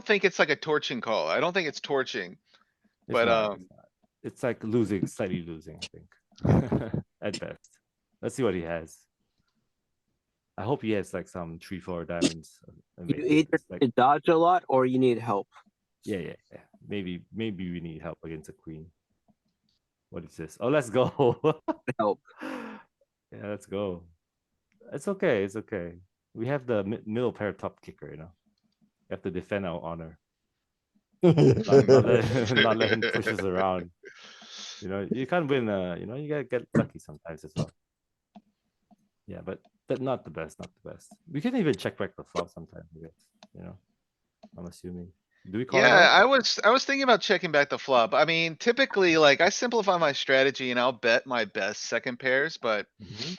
think it's like a torching call. I don't think it's torching. It's But, not, um, it's not. It's like losing, slightly losing, I think. At best. Let's see what he has. I hope he has like some three, four diamonds. uh, and You maybe either it's like- need to dodge a lot or you need help. Yeah, yeah, yeah. Maybe, maybe we need help against a queen. What is this? Oh, let's go. Help. Yeah, let's go. It's okay, it's okay. We have the mi- middle pair top kicker, you know? We have to defend our honor. Not let, not let him push us around. You know, you can't win. Uh, you know, you gotta get lucky sometimes as well. Yeah, but that not the best, not the best. We can even check back the flop sometimes. I guess, you know, I'm assuming. Do we call? it Yeah, out? I was, I was thinking about checking back the flop. I mean, typically, like, I simplify my strategy and I'll bet my best second pairs, but Mhm.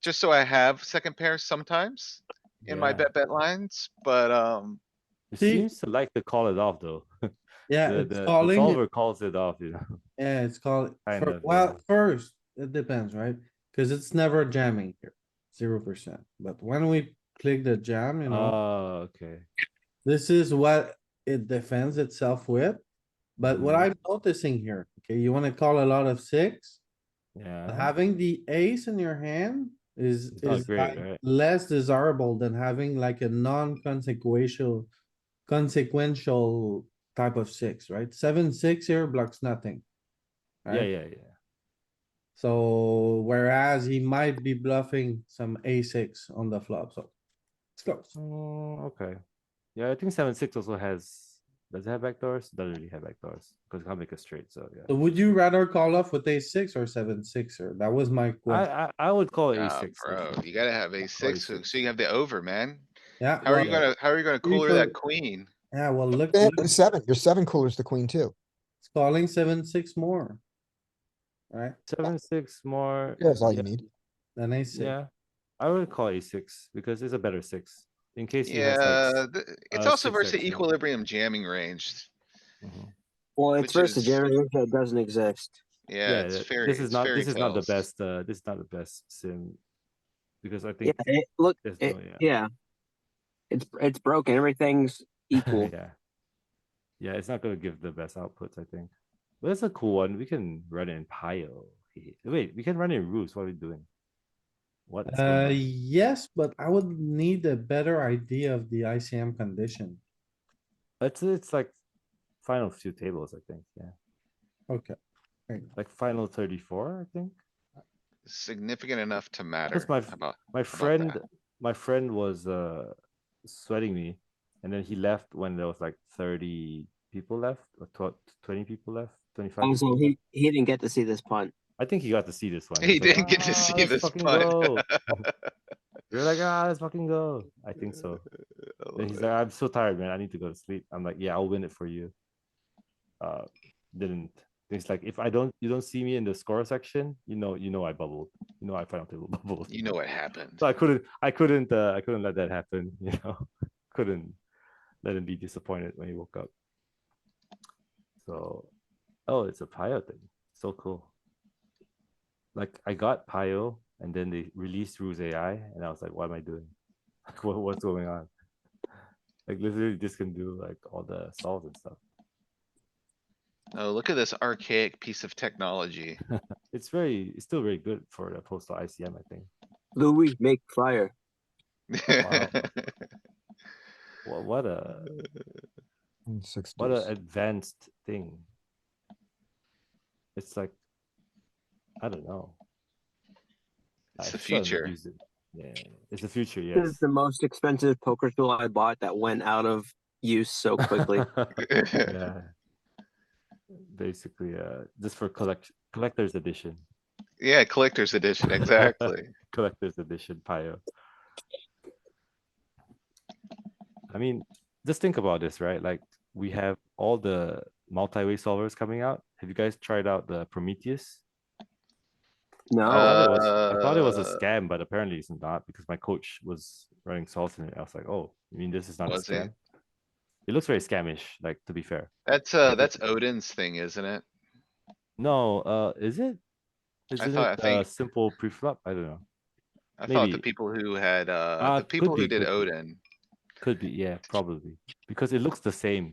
just so I have second pairs sometimes in my Yeah. bet bet lines, but, um, It See? seems to like to call it off though. Yeah, the, it's the, the calling, it- solver calls it off. You know. yeah, it's called, Kind for- of, yeah. well, first, it depends, right? Cuz it's never jamming here, zero percent, but when we click the jam, you know, Oh, okay. this is what it defends itself with. But what Mhm. I'm noticing here, okay, you wanna call a lot of six, Yeah. having the ace in your hand is, Uh-huh. It's not is great, like right? less desirable than having like a non-consequential, consequential type of six, right? Seven, six here blocks nothing. Yeah, right? yeah, yeah. So whereas he might be bluffing some a six on the flop, so it's close. Oh, okay. Yeah, I think seven six also has. Does it have backdoors? Doesn't really have backdoors because it can't make a straight. So yeah. So would you rather call off with a six or seven six or that was my question? I, I, I would call it E nah, a6. ah, bro, you gotta have a six, so six. so you have the over, man. Yeah. How are you well, gonna, how are you gonna Three cooler that thirty. queen? Yeah, well, look, Yeah, look, and seven, your seven cooler's the queen too. it's calling seven six more. Right, Seven, six more. That's all you yeah, need. then a six. Yeah, I would call a6 because it's a better six in case. he has, like, Yeah, s- th- it's uh, also six versus X, the yeah. equilibrium jamming range. mhm. Well, it's Which versus is- generator that doesn't exist. Yeah, it's th- fair. This is it's not, fairy this is not the tales. best, uh, this is not the best sim. Because I Yeah, think it, look, there's it- no, yeah. yeah, it's it's broken. Everything's equal. Yeah. Yeah, it's not gonna give the best outputs, I think. But it's a cool one. We can run it in Pio. Wait, we can run it in Roost. What are we doing? What? is Uh, going on? yes, but I would need a better idea of the ICM condition. It's, it's like final few tables, I think, yeah. Okay, Like final thirty-four, I think. Significant enough to matter. my How f- about- My that? friend, my friend was uh sweating me, and then he left when there was like thirty people left, or tw- twenty people left, twenty-five. Oh, Also, people he left. he didn't get to see this punt. I think he got to see this one. He He's "Ah, didn't get to see let's this fucking one." go." We're like, ah, let's fucking go. I think so. I Then love he's it. like, I'm so tired, man. I need to go to sleep. I'm like, yeah, I'll win it for you. Uh, didn't. He's like, if I don't, you don't see me in the score section, you know, you know, I bubbled. You know, I final table bubbled. You know what happened. So I couldn't, I couldn't, uh, I couldn't let that happen. You know, couldn't let him be disappointed when he woke up. So, oh, it's a Pio thing. So cool. Like I got Pio, and then they released Ruse AI, and I was like, what am I doing? Like, what, what's going on? Like literally, this can do like all the solves and stuff. Oh, look at this archaic piece of technology. It's very, it's still very good for the postal ICM, I think. Louis make fire. What, what a And Six What an deuce. advanced thing. It's like, I don't know. It's I the still haven't future. used it. Yeah, it's the future, This yes. is the most expensive poker tool I bought that went out of use so quickly. yeah. Basically, uh, just for collect collector's edition, Yeah, collector's edition, exactly. collector's edition Pio. I mean, just think about this, right? Like we have all the multi-way solvers coming out. Have you guys tried out the Prometheus? no, I thought it was- I thought it was a Uh, scam, but apparently it's not because my coach was running salt in it. I was like, oh, you mean this is not a Was it? scam? It looks very scamish, like to be fair. That's, uh, that's Odin's thing, isn't it? No, uh, is it? Isn't thought- it I a think- simple preflop? I don't know. I thought the Maybe. people who had, uh, Uh, the could people who be, did could be. Odin. Could be, yeah, probably because it looks the same.